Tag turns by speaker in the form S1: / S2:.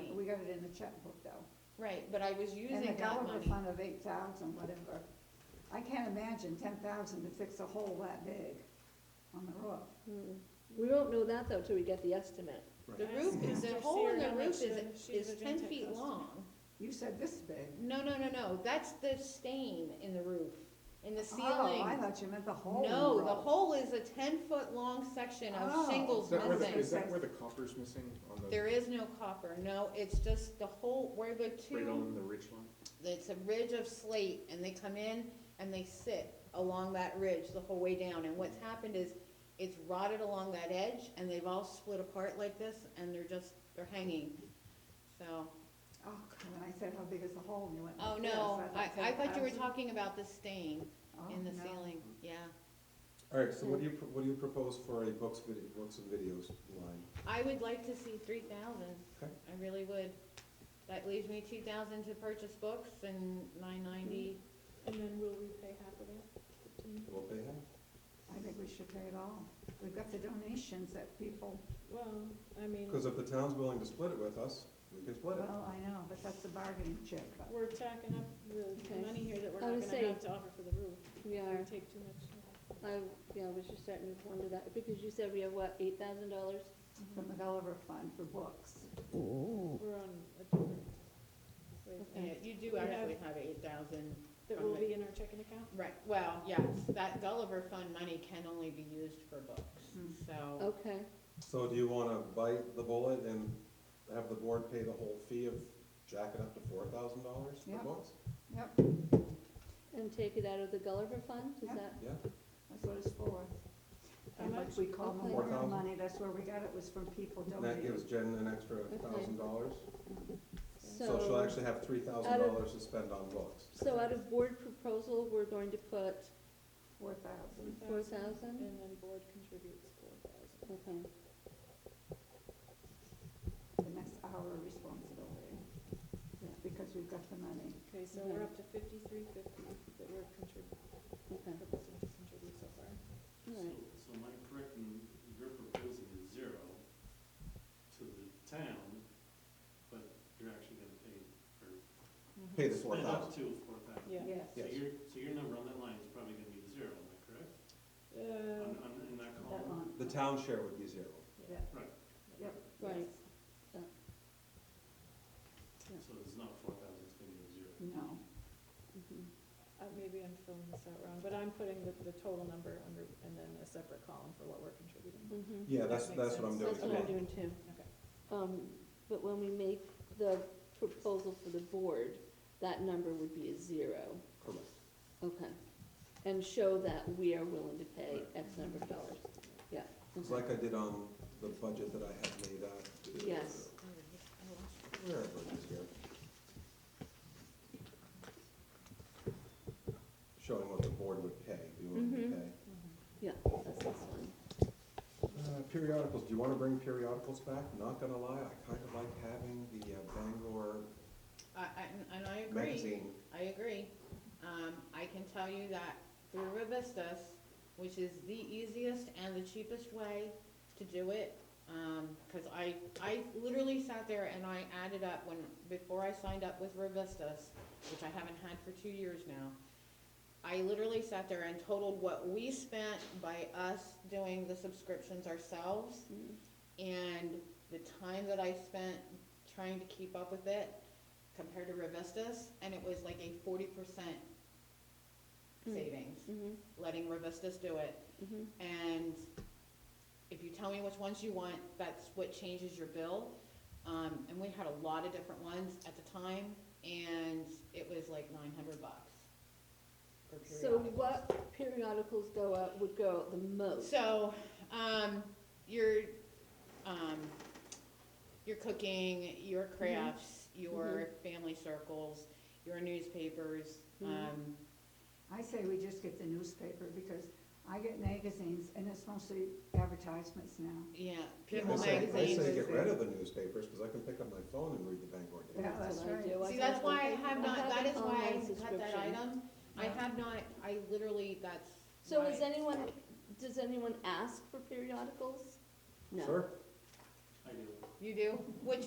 S1: a checkbook though.
S2: Right, but I was
S1: And the
S2: using that
S1: Gulliver
S2: money.
S1: fund of eight thousand, whatever. I can't imagine ten thousand to fix a hole that big on the roof.
S3: Mm. We won't know that though till we get the estimate.
S2: The roof is, the
S4: Ask
S2: hole in the
S4: Sarah how
S2: roof
S4: much, uh,
S2: is,
S4: she's
S2: is
S4: gonna
S2: ten
S4: take
S2: feet
S4: us.
S2: long.
S1: You said this big.
S2: No, no, no, no, that's the stain in the roof, in the
S1: Oh, I
S2: ceiling.
S1: thought you meant the hole in the
S2: No, the
S1: roof.
S2: hole is a ten-foot-long section of
S1: Oh.
S2: shingles
S5: Is that where the,
S2: missing.
S5: is that where the copper's missing on the,
S2: There is no copper, no, it's just the hole where the
S5: right
S2: two,
S5: on the ridge line?
S2: it's a ridge of slate, and they come in and they sit along that ridge the whole way down, and what's happened is it's rotted along that edge, and they've all split apart like this, and they're just, they're hanging, so.
S1: Oh, God, when I said how big is the hole, and you went
S2: Oh,
S1: like this.
S2: no, I, I thought you were
S1: 10,000.
S2: talking about the stain
S1: Um, Oh,
S2: in the
S1: no.
S2: ceiling, yeah.
S6: All right, so what do you, pro- what do you propose for a books, vid- books and videos line?
S2: I would like to see three thousand,
S6: Okay.
S2: I really would. That leaves me two thousand to purchase books and nine ninety,
S4: And then will we pay half of that?
S6: We'll pay half.
S1: I think we should pay it all. We've got the donations that people,
S4: Well, I mean,
S6: Because if the town's willing to split it with us, we can split it.
S1: well, I know, but that's a bargaining chip. but-
S4: we're tacking up the
S3: Okay.
S4: money here that we're
S3: I
S4: not
S3: was
S4: gonna
S3: saying-
S4: have to offer for the roof.
S3: We
S4: It
S3: are,
S4: would take too much.
S3: I, yeah, I was just starting to wonder that, because you said we have what, eight thousand dollars?
S1: from the Gulliver Fund for books.
S4: We're on a different way of
S2: Yeah,
S4: thinking.
S2: you
S4: We
S2: do
S4: have-
S2: actually have eight thousand.
S4: That will be in our checking account?
S2: Right, well, yes, that Gulliver Fund money can only be used for books,
S1: Hmm.
S2: so,
S3: Okay,
S6: So do you wanna bite the bullet and have the board pay the whole fee of jack it up to four thousand dollars for
S1: Yeah.
S6: books?
S1: Yep,
S3: and take it out of the Gulliver fund, is
S1: Yeah.
S3: that,
S6: Yeah,
S1: that's what it's for.
S4: How
S1: And like
S4: much?
S1: we call
S3: Okay.
S1: memorial
S6: 4,000?
S1: money, that's where we got it, was from people
S6: and that
S1: donating.
S6: gives Jen an extra thousand dollars. So she'll
S3: so,
S6: actually have three thousand dollars to spend on books.
S3: so out of board proposal, we're going to put,
S1: Four thousand.
S3: Four thousand?
S4: And then board contributes four
S3: okay,
S4: thousand.
S1: The next hour responsibility,
S3: Yeah.
S1: because we've got the money.
S4: Okay, so
S3: Okay.
S4: we're up to fifty-three fifty that we're contributing,
S3: okay,
S4: proposing to contribute so far.
S3: all
S7: So,
S3: right.
S7: so am I correct in you're proposing a zero to the town, but you're actually gonna pay, or
S6: Pay the four
S7: spend up
S6: thousand.
S7: to four thousand?
S4: Yeah.
S1: Yes.
S7: So
S6: Yes.
S7: your, so your number on that line is probably gonna be zero, am I correct? On,
S4: Uh,
S7: on, in that
S1: That
S7: column?
S1: one.
S6: The town share would be zero.
S1: Yeah.
S7: Right.
S1: Yep.
S3: Right,
S7: So it's not four thousand, it's gonna be a zero.
S1: No,
S3: mhm.
S4: uh, maybe I'm filling this out wrong, but I'm putting the, the total number under, and then a separate column for what we're contributing.
S3: Mhm.
S6: Yeah,
S4: That
S6: that's,
S4: makes
S6: that's what I'm
S4: sense.
S6: doing.
S3: That's what I'm
S6: today.
S3: doing too.
S4: Okay.
S3: Um, but when we make the proposal for the board, that number would be a zero.
S6: Correct.
S3: Okay, and show that we are willing to pay X number of dollars, yeah.
S6: It's
S3: okay.
S6: like I did on the budget that I had made out.
S3: Yes.
S6: Where are budgets here? Showing what the board would pay, be willing
S3: Mhm.
S6: to pay.
S3: Yeah, that's this one.
S6: Uh, Periodicals, do you wanna bring periodicals back? Not gonna lie, I kinda like having the uh, Bangor
S2: I, I, and I agree.
S6: magazine.
S2: I agree. Um, I can tell you that through Revistas, which is the easiest and the cheapest way to do it, um, cause I, I literally sat there and I added up when, before I signed up with Revistas, which I haven't had for two years now, I literally sat there and totaled what we spent by us doing the subscriptions ourselves
S3: Mm.
S2: and the time that I spent trying to keep up with it compared to Revistas, and it was like a forty percent
S3: Mm.
S2: savings,
S3: Mhm,
S2: letting Revistas do it.
S3: mhm,
S2: And if you tell me which ones you want, that's what changes your bill. Um, and we had a lot of different ones at the time, and it was like nine hundred bucks for
S3: So
S2: periodicals.
S3: what periodicals go out, would go out the most?
S2: So, um, your, um, your cooking, your
S3: Mm-hmm.
S2: crafts, your family circles, your newspapers,
S3: Mhm.
S2: um,
S1: I say we just get the newspaper, because I get magazines, and it's mostly advertisements now.
S2: yeah,
S1: Yeah,
S2: People
S6: I say, I
S2: magazine.
S6: say get rid of the newspapers, cause I can pick up my phone and read the Bangor Daily.
S1: Yeah, that's
S3: what I
S1: right.
S3: do. I
S2: See, that's
S3: have
S2: why I
S3: a-
S2: have not, that
S3: an
S2: is why
S3: online
S2: I cut that
S3: subscription.
S2: item. I have not, I literally, that's
S3: So
S2: why-
S3: is anyone, does anyone ask for periodicals? No.
S6: Sure.
S7: I do.
S2: You do? Which